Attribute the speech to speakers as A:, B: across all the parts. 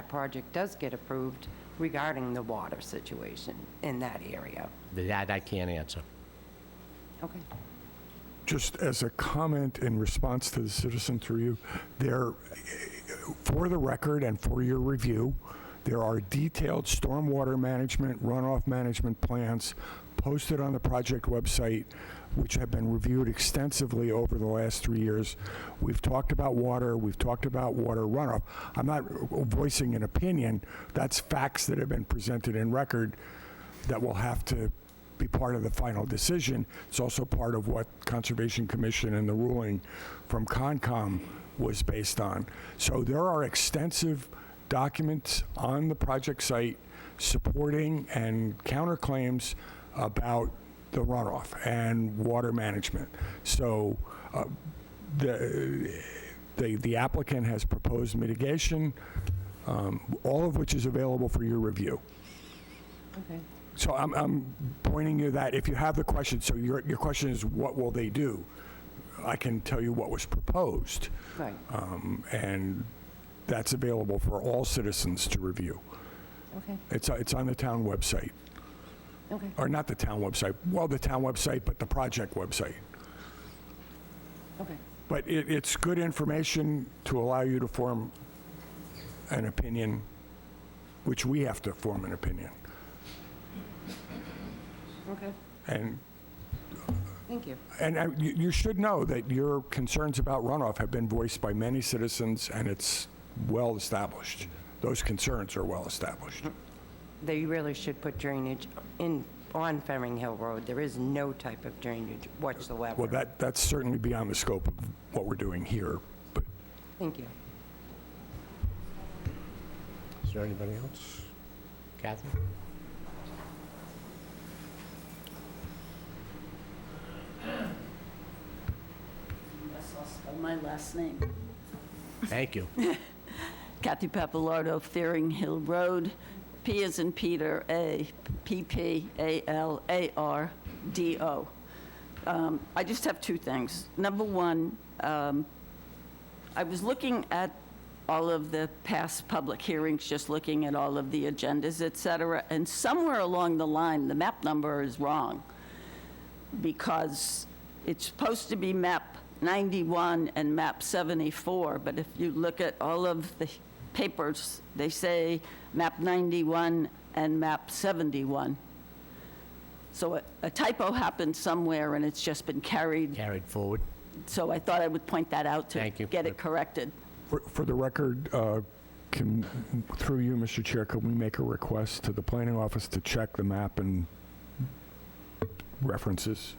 A: that project does get approved regarding the water situation in that area.
B: That I can't answer.
A: Okay.
C: Just as a comment in response to the citizen through you, there, for the record and for your review, there are detailed stormwater management, runoff management plans posted on the project website, which have been reviewed extensively over the last three years. We've talked about water, we've talked about water runoff. I'm not voicing an opinion, that's facts that have been presented in record that will have to be part of the final decision. It's also part of what Conservation Commission and the ruling from Concom was based on. So there are extensive documents on the project site supporting and counterclaims about the runoff and water management. So uh, the the the applicant has proposed mitigation, um, all of which is available for your review.
A: Okay.
C: So I'm, I'm pointing you that if you have the question, so your, your question is, what will they do? I can tell you what was proposed,
A: Right.
C: um, and that's available for all citizens to review.
A: Okay.
C: It's, it's on the town website,
A: Okay.
C: or not the town website, well, the town website, but the project website.
A: Okay.
C: But it, it's good information to allow you to form an opinion, which we have to form an opinion.
A: Okay.
C: And
A: Thank you.
C: And uh, you you should know that your concerns about runoff have been voiced by many citizens, and it's well-established. Those concerns are well-established.
A: They really should put drainage in, on Ferring Hill Road. There is no type of drainage
C: Well,
A: whatsoever.
C: that, that's certainly beyond the scope of what we're doing here, but
A: Thank you.
B: Is there anybody else? Catherine?
D: Yes, I'll spell my last name.
B: Thank you.
D: Kathy Pappalardo, Fearing Hill Road, P as in Peter, A, P P A L A R D O. Um, I just have two things. Number one, um, I was looking at all of the past public hearings, just looking at all of the agendas, et cetera, and somewhere along the line, the map number is wrong. because it's supposed to be map 91 and map 74, but if you look at all of the papers, they say map 91 and map 71. So a- a typo happened somewhere, and it's just been carried,
B: Carried forward.
D: so I thought I would point that out to
B: Thank you.
D: get it corrected.
C: for- for the record, uh, can, through you, Mr. Chair, can we make a request to the planning office to check the map and references?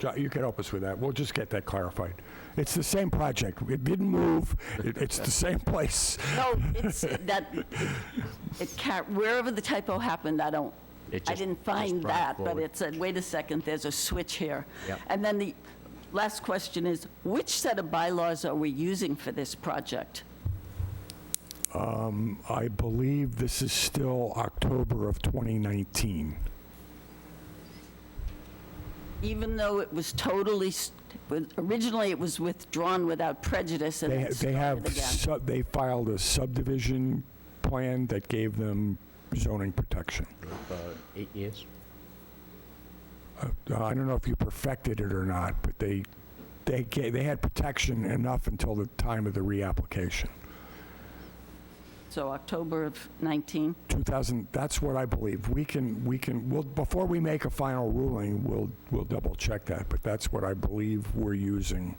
C: Jo- You can help us with that. We'll just get that clarified. It's the same project. It didn't move. It- It's the same place.
D: No, it's, that, it, ca- wherever the typo happened, I don't,
B: It
D: I
B: just-
D: didn't
B: just
D: find
B: brought it
D: that, but
B: forward.
D: it said, wait a second, there's a switch here.
B: Yep.
D: And then the last question is, which set of bylaws are we using for this project?
C: I believe this is still October of 2019.
D: Even though it was totally, s- with- originally it was withdrawn without prejudice and
C: They
D: then
C: ha- they have,
D: started again.
C: sub- they filed a subdivision plan that gave them zoning protection.
B: About Eight years?
C: Uh, I don't know if you perfected it or not, but they, they, ga- they had protection enough until the time of the reapplication.
D: So October of 19,
C: 2000, that's what I believe. We can, we can, we'll, before we make a final ruling, we'll, we'll double-check that, but that's what I believe we're using.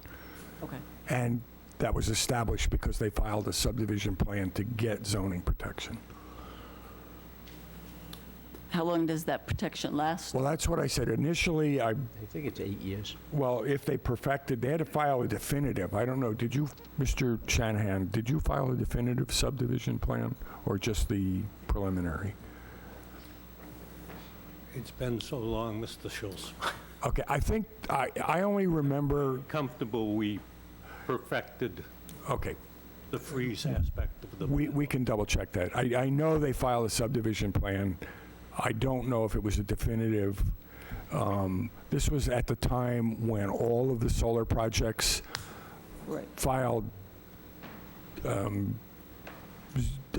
D: okay.
C: And that was established because they filed a subdivision plan to get zoning protection.
D: How long does that protection last?
C: Well, that's what I said. Initially, I,
B: I think it's eight years.
C: well, if they perfected, they had to file a definitive. I don't know, did you, Mr. Shanahan, did you file a definitive subdivision plan or just the preliminary?
E: It's been so long, Mr. Schultz.
C: Okay, I think, I, I only remember,
E: Comfortable we perfected
C: okay,
E: the freeze aspect of the...
C: we, we can double-check that. I, I know they filed a subdivision plan. I don't know if it was a definitive. Um, This was at the time when all of the solar projects
D: Right.
C: filed um,